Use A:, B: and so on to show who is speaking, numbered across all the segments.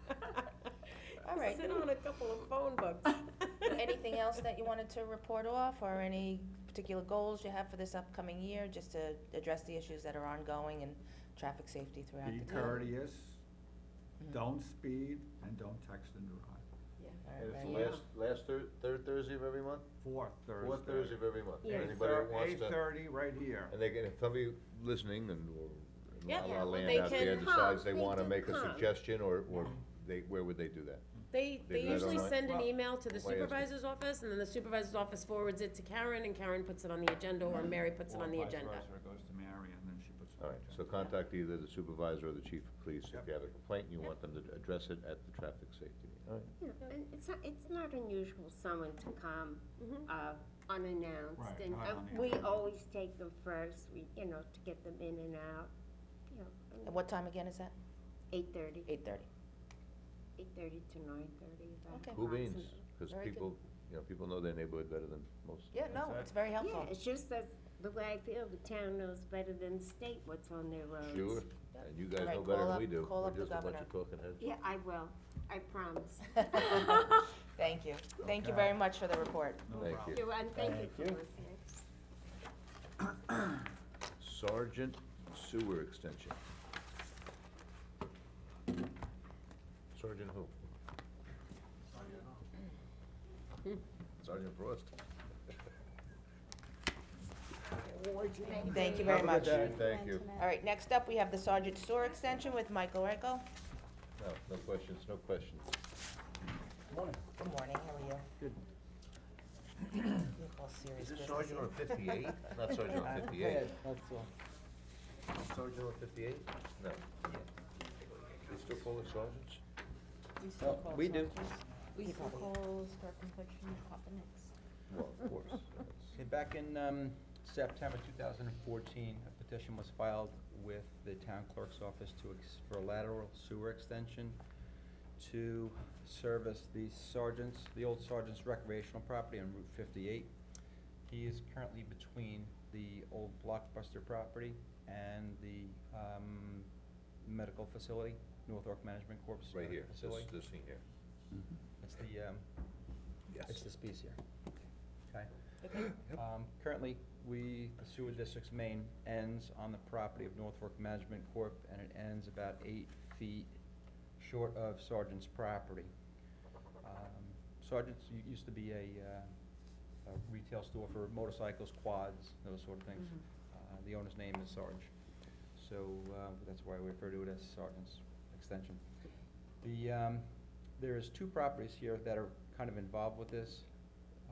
A: All right.
B: Sit on a couple of phone books.
A: Anything else that you wanted to report off, or any particular goals you have for this upcoming year, just to address the issues that are ongoing and traffic safety throughout
C: Be
A: the town?
C: courteous,
B: Mm-hmm.
A: Mhm.
C: don't speed, and don't text and drive.
A: All
D: And it's
A: right,
D: the
A: ready?
B: Yeah.
D: last, last Thur- third Thursday of every month?
C: Fourth Thursday.
D: Fourth Thursday of every month,
B: Yeah.
D: anybody that wants
C: Eight
D: to,
C: thirty, right here.
D: and they can, if somebody listening and, or
B: Yep.
D: La
B: Yeah,
D: La
B: they
D: Land out there
B: can come.
D: decides they
B: They
D: wanna
B: can
D: make a
B: come.
D: suggestion, or, or they, where would they do that?
B: They,
D: They
B: they
D: do that
B: usually
D: online?
B: send an
C: Well-
B: email to the
D: Why is it?
B: supervisor's office, and then the supervisor's office forwards it to Karen, and Karen puts it on the agenda,
D: Hmm.
B: or Mary puts it on the
C: Or vice
B: agenda.
C: versa, it goes to Mary, and then she puts it on
D: All right,
C: the
D: so
C: agenda.
D: contact either the supervisor or the chief of police if
C: Yep.
D: you have a complaint, and you want them to address it at the traffic safety. meeting. All right,
E: Yeah, and it's not, it's not unusual someone to come,
B: Mhm.
E: uh, unannounced,
C: Right,
E: and
C: not
E: uh,
C: on the
E: we
C: agenda.
E: always take them first, we, you know, to get them in and out, you
A: At
E: know,
A: what time again is that?
E: eight thirty,
A: Eight thirty.
E: eight thirty to nine thirty, about
A: Okay.
D: Who means?
E: approximately.
D: Because
A: Very good.
D: people, you know, people know their neighborhood better than most.
A: Yeah, no,
C: That's it.
A: it's very helpful.
E: Yeah, it's just that, the way I feel, the town knows better than the state what's on their roads.
D: Sure,
A: Yep.
D: and you guys
A: All right,
D: know better
A: call
D: than
A: up-
D: we do,
A: call
D: we're
A: up the
D: just a bunch
A: governor.
D: of talking heads.
E: Yeah, I will, I promise.
A: Thank you. Thank you
C: Okay.
A: very much for the report.
C: No
D: Thank
C: problem.
D: you.
E: Sure, And thank you
D: Thank
E: for
D: you.
E: listening.
D: Sergeant Sewer Extension. Sergeant who? Sergeant Frost.
A: Thank you very much.
D: Thank you.
A: All right, next up, we have the Sergeant Sewer Extension with Michael Reichel.
D: No, no questions, no questions.
A: Good morning, how are you?
C: Good.
A: You have all serious business here.
D: on fifty-eight? Not Sergeant on fifty-eight. Sergeant on fifty-eight? No. They still call it sergeants?
F: Oh, We do.
A: We still
G: calls for confection next.
D: Well, of course. that's-
F: Okay, Back in um, September 2014, a petition was filed with the town clerk's office to, ex- for a lateral sewer extension to service the sergeant's, the old sergeant's recreational property on Route 58. He is currently between the old Blockbuster property and the um, medical facility, North York Management Corp's
D: Right here,
F: medical
D: this,
F: facility.
D: this thing here.
F: It's the, um,
D: Yes.
F: it's this piece here. Okay. Um, currently, we, the sewer district's main ends on the property of Northfork Management Corp., and it ends about eight feet short of Sergeant's property. Um, Sergeant's u- used to be a, uh, a retail store for motorcycles, quads, those sort of things. Uh, the owner's name is Sarge, so, uh, that's why we refer to it as Sergeant's Extension. The, um, there is two properties here that are kind of involved with this,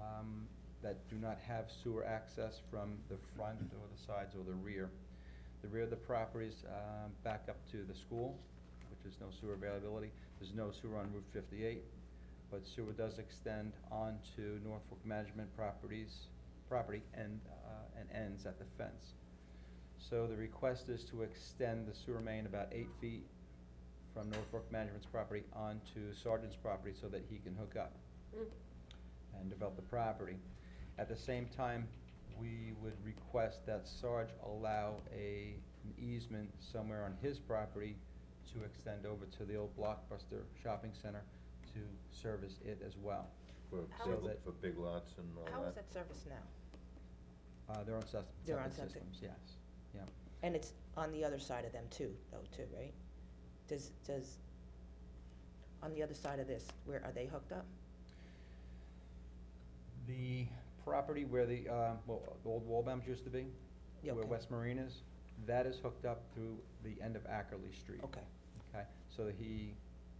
F: um, that do not have sewer access from the front or the sides or the rear. The rear of the properties, um, back up to the school, which is no sewer availability. There's no sewer on Route fifty-eight, but sewer does extend onto Norfolk Management Properties, property and, uh, and ends at the fence. So the request is to extend the sewer main about eight feet from Norfolk Management's property onto Sergeant's property so that he can hook up
B: Mm.
F: and develop the property. At the same time, we would request that Sarge allow a, an easement somewhere on his property to extend over to the old Blockbuster Shopping Center to service it as well.
D: For,
A: How
D: single-
F: is it-
D: for big lots and all that.
A: How is that service now?
F: Uh, they're on sus-
A: They're on
F: septic
A: septic.
F: systems, yes, yeah.
A: And it's on the other side of them too, though, too, right? Does, does, on the other side of this, where, are they hooked up?
F: The property where the, uh, well, the old Walbaums used to be,
A: Yeah,
F: where
A: okay.
F: West Marine is, that is hooked up through the end of Ackerley Street.
A: Okay,
F: Okay, so he,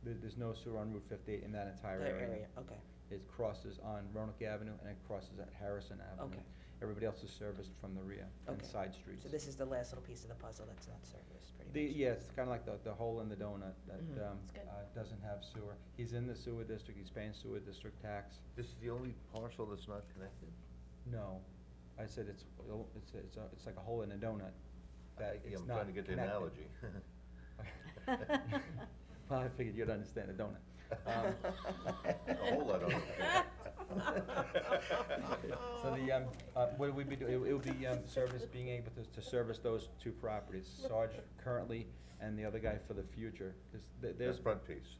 F: there, there's no sewer on Route fifty-eight in that entire
A: their
F: area.
A: area, okay.
F: It crosses on Roanoke Avenue and it crosses at Harrison Avenue.
A: Okay.
F: Everybody else is serviced from the rear and
A: Okay.
F: side streets.
A: So this is the last little piece of the puzzle that's not serviced, pretty
F: The,
A: much?
F: yeah, it's kinda like the, the hole in the donut that,
A: Mhm.
F: um,
B: It's good.
F: uh, doesn't have sewer. He's in the sewer district, he's paying sewer district tax.
D: This is the only parcel that's not connected?
F: Uh, No, I said it's, it's, it's, a- it's like a hole in a donut, that
D: Yeah,
F: it's
D: I'm
F: not
D: trying to get the
F: connected.
D: analogy.
F: Well, I figured you'd understand a donut. Um,
D: A whole lot of.
F: So the, um, uh, what we'd be doing, it would be, um, service, being able to, to service those two properties, Sarge currently and the other guy for the future, 'cause there-
D: That's
F: there's.
D: front piece.